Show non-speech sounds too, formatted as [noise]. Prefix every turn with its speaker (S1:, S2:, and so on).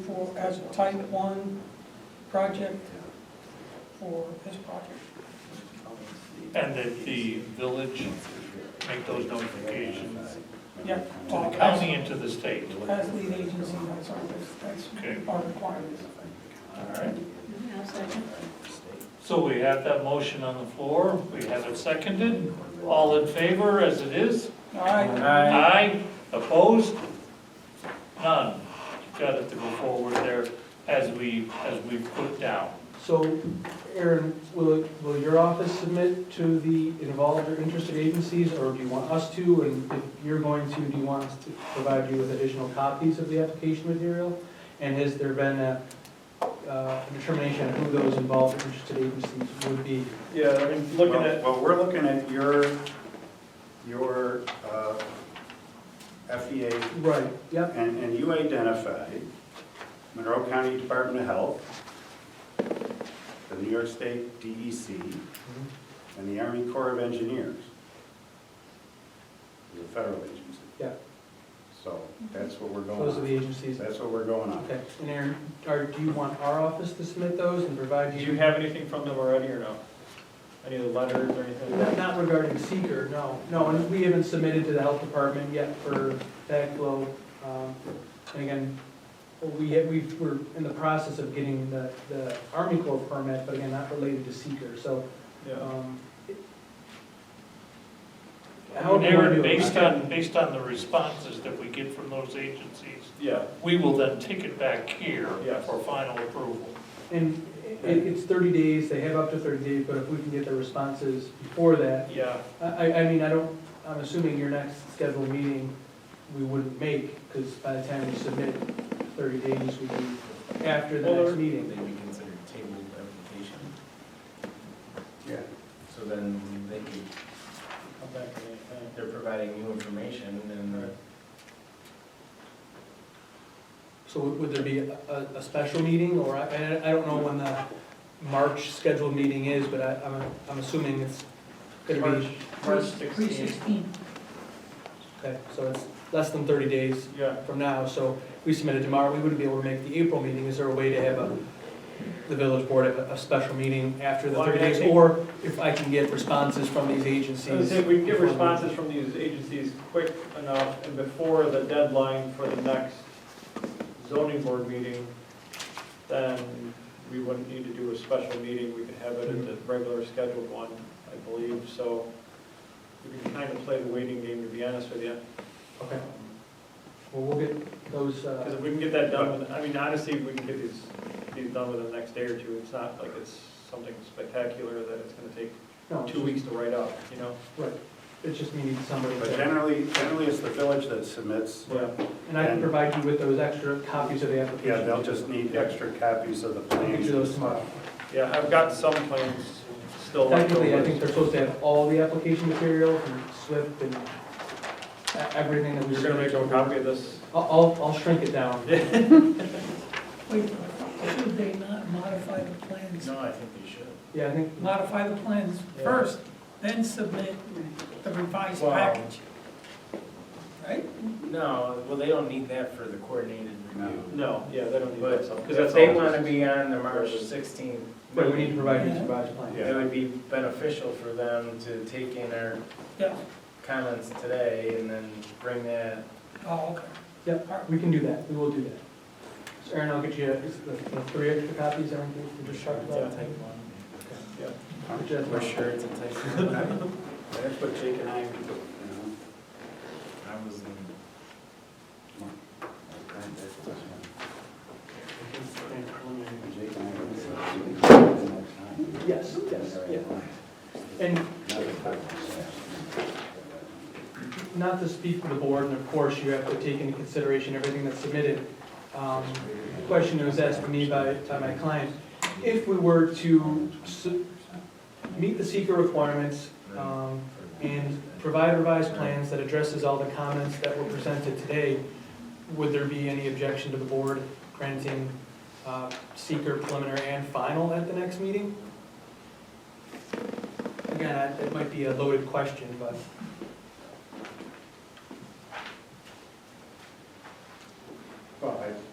S1: for, as a type one project for this project.
S2: And that the village make those notifications
S1: Yeah.
S2: to the county and to the state.
S1: As lead agency, that's our, that's
S2: Okay.
S1: our requirements.
S2: All right.
S3: I'll second.
S2: So we have that motion on the floor, we have it seconded, all in favor as it is?
S1: All right,
S2: Aye. Opposed? None. You've got it to go forward there as we, as we put down.
S4: So, Aaron, will, will your office submit to the involved or interested agencies, or do you want us to? And if you're going to, do you want us to provide you with additional copies of the application material? And has there been a, uh, determination of who those involved or interested agencies would be?
S5: Yeah, I mean, looking
S6: Well-
S5: at,
S6: Well, we're looking at your, your uh, FEA,
S4: Right, yep,
S6: and, and you identified Monroe County Department of Health, the New York State E DEC,
S4: Mm-hmm.
S6: and the Army Corps of Engineers. The federal agency.
S4: Yeah.
S6: So that's what we're going
S4: those are the
S6: on.
S4: agencies.
S6: That's what we're going on.
S4: Okay, and Aaron, are, do you want our office to submit those and provide
S5: do
S4: you?
S5: you have anything from them already or no? Any of the letters or anything like
S4: Not
S5: that?
S4: not regarding seeker, no, no, and we haven't submitted to the health department yet for that glow. Um, And again, we, had- we were in the process of getting the, the Army Corps permit, but again, not related to seeker, so.
S5: Yeah.
S4: um, it- how do you wanna do
S2: Aaron,
S4: it?
S2: based on, based on the responses that we get from those agencies,
S5: Yeah,
S2: we will then take it back here
S5: Yes.
S2: for final approval.
S4: And it, it's thirty days, they have up to thirty days, but if we can get the responses before that,
S5: yeah,
S4: I, I, I mean, I don't, I'm assuming your next scheduled meeting, we wouldn't make, because by the time we submit, thirty days would be after the
S5: Well,
S4: next
S5: or-
S4: meeting.
S7: They be considered tabled application,
S6: Yeah.
S7: so then they could,
S5: come back to me anytime.
S7: they're providing new information and.
S4: So would would there be a, a- a special meeting, or, I, I I don't know when the March scheduled meeting is, but I, I'm, I'm assuming it's gonna be,
S5: March
S1: three
S5: 16th.
S1: sixteen.
S4: okay, so it's less than thirty days
S5: Yeah,
S4: from now, so we submitted tomorrow, we wouldn't be able to make the April meeting, is there a way to have a, the village board have a, a special meeting after the
S5: Well, I
S4: thirty
S5: mean, I
S4: days?
S5: think-
S4: Or if I can get responses from these
S5: So I
S4: agencies?
S5: think we can get responses from these agencies quick enough and before the deadline for the next zoning board meeting, then we wouldn't need to do a special meeting, we could have it at the regular scheduled one, I believe, so we can kind of play the waiting game, to be honest with you.
S4: Okay, well, we'll get those,
S5: Because
S4: uh,
S5: if we can get that done, with- I mean, honestly, if we can get these, these done within the next day or two, it's not like it's something spectacular that it's gonna take
S4: no,
S5: two weeks to write up, you know?
S4: right, it's just me needing somebody
S6: But
S4: to,
S6: generally, generally it's the village that submits.
S5: Yeah.
S4: and I can provide you with those extra copies of the application.
S6: Yeah, they'll just need extra copies of the
S4: I'll get
S6: plans.
S4: you those tomorrow.
S5: Yeah, I've got some plans still left
S4: Technically, I think
S5: over.
S4: they're supposed to have all the application material from SWIFT and e- everything that we.
S5: You're gonna make a
S4: submitted.
S5: copy of this?
S4: I'll, I'll, I'll shrink it down.
S1: Wait, should they not modify the plans?
S7: No, I think they should.
S4: Yeah, I think,
S1: Modify the plans
S5: Yeah.
S1: first, then submit the revised
S7: Wow.
S1: package. Right?
S7: No, well, they don't need that for the coordinated review.
S5: No, yeah, they don't need that stuff.
S7: But
S5: 'cause
S7: if
S5: that's
S7: they
S5: all-
S7: wanna be on the March sixteenth,
S4: but we need to provide you with revised plans.
S7: it would be beneficial for them to take in our
S1: Yeah.
S7: comments today and then bring that
S1: Oh, okay.
S4: Yep, we can do that, we will do that. So Aaron, I'll get you is the the three extra copies, everything we just talked
S7: to
S4: about.
S7: type one.
S4: Just-
S7: We're sure it's a type one.
S6: That's what Jake and [laughs] I would do, you
S7: I was in.
S6: know?
S4: Yes, yes, yeah. And not to speak for the board, and of course, you have to take into consideration everything that's submitted. Um, the Question that was asked to me by, by my client, if we were to su- meet the seeker requirements, um, and provide revised plans that addresses all the comments that were presented today, would there be any objection to the board granting uh, seeker preliminary and final at the next meeting? Again, I- it might be a loaded question, but
S6: Well, I-